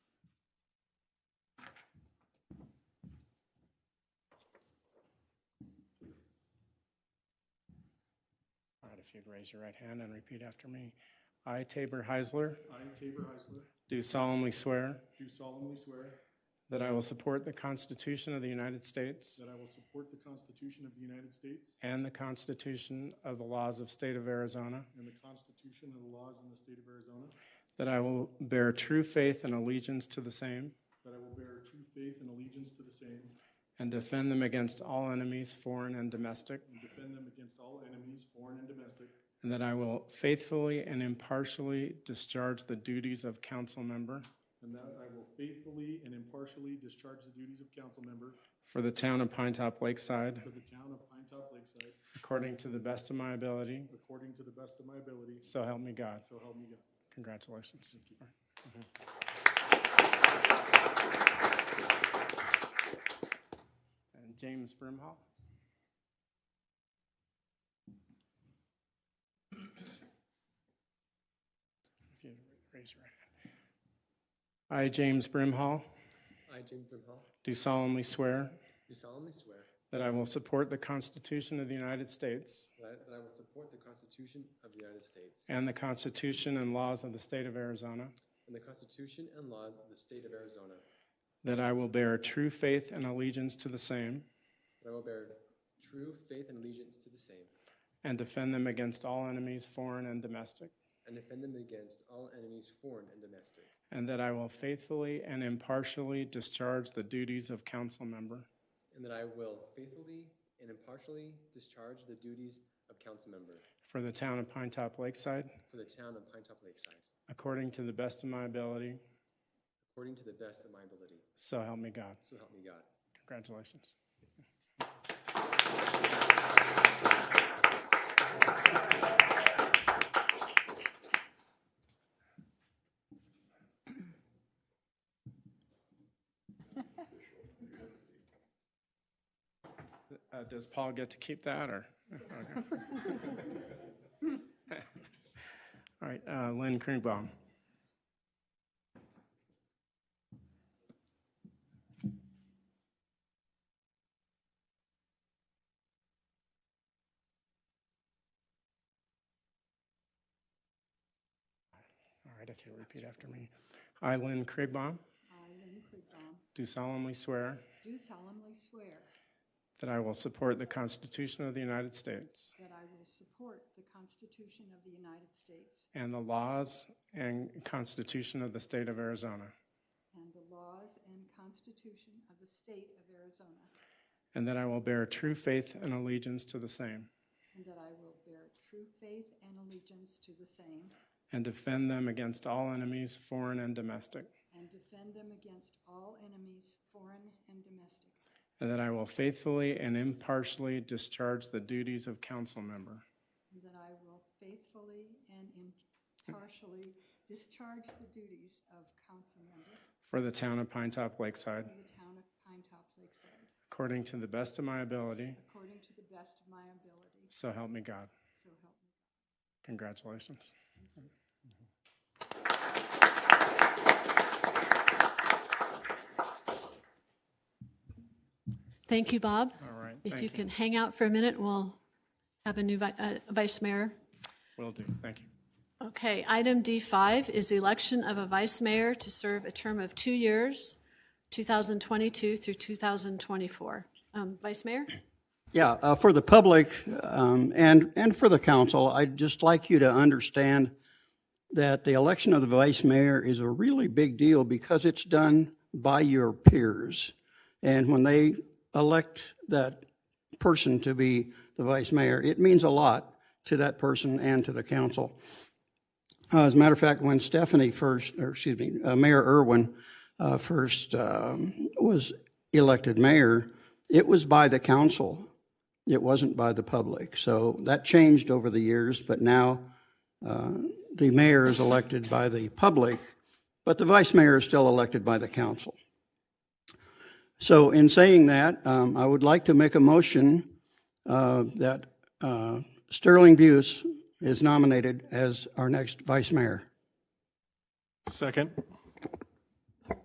if you'd raise your right hand and repeat after me. I, Tabor Heisler, I, Tabor Heisler, do solemnly swear do solemnly swear that I will support the Constitution of the United States that I will support the Constitution of the United States and the Constitution of the laws of state of Arizona, and the Constitution and the laws in the state of Arizona, that I will bear true faith and allegiance to the same that I will bear true faith and allegiance to the same and defend them against all enemies, foreign and domestic, and defend them against all enemies, foreign and domestic, and that I will faithfully and impartially discharge the duties of council member and that I will faithfully and impartially discharge the duties of council member for the town of Pine Top Lakeside for the town of Pine Top Lakeside according to the best of my ability. according to the best of my ability, So help me God. so help me God. Congratulations. Mm-hmm. And James Brimhall. If you raise your right hand. I, James Brimhall, I, James Brimhall, do solemnly swear do solemnly swear that I will support the Constitution of the United States that I- that I will support the Constitution of the United States and the Constitution and laws of the state of Arizona, and the Constitution and laws of the State of Arizona, that that I will bear true faith and allegiance to the same I will bear true faith and allegiance to the same, and defend them against all enemies, foreign and domestic, and defend them against all enemies, foreign and domestic, and that I will faithfully and impartially discharge the duties of council member and that I will faithfully and impartially discharge the duties of council member for the town of Pine Top Lakeside for the town of Pine Top Lakeside, according to the best of my ability. according to the best of my ability. So help me God. So help me God. Congratulations. Uh, Does Paul get to keep that, or? okay. All right, uh, Lynn Krigbaum. All right, if you'll repeat after me. I, Lynn Krigbaum, I, Lynn Krigbaum, do solemnly swear do solemnly swear that I will support the Constitution of the United States that I will support the Constitution of the United States and the laws and Constitution of the State of Arizona, and the laws and Constitution of the State of Arizona, and that I will bear true faith and allegiance to the same and that I will bear true faith and allegiance to the same, and defend them against all enemies, foreign and domestic, and defend them against all enemies, foreign and domestic, and that I will faithfully and impartially discharge the duties of council member and that I will faithfully and impartially discharge the duties of council member for the town of Pine Top Lakeside for the town of Pine Top Lakeside, according to the best of my ability, according to the best of my ability, so help me God. so help me. Congratulations. Thank you, Bob. All right, If you thank you. can hang out for a minute, we'll have a new vi- uh, vice mayor. Will do, thank you. Okay, item D5 is the election of a vice mayor to serve a term of two years, 2022 through 2024. Um, Vice Mayor? Yeah, uh, for the public um, and, and for the council, I'd just like you to understand that the election of the vice mayor is a really big deal because it's done by your peers. And when they elect that person to be the vice mayor, it means a lot to that person and to the council. Uh, As a matter of fact, when Stephanie first, or excuse me, uh, Mayor Irwin uh, first um, was elected mayor, it was by the council. It wasn't by the public. So that changed over the years, but now uh, the mayor is elected by the public, but the vice mayor is still elected by the council. So in saying that, um, I would like to make a motion uh, that uh, Sterling Buse is nominated as our next vice mayor. Second.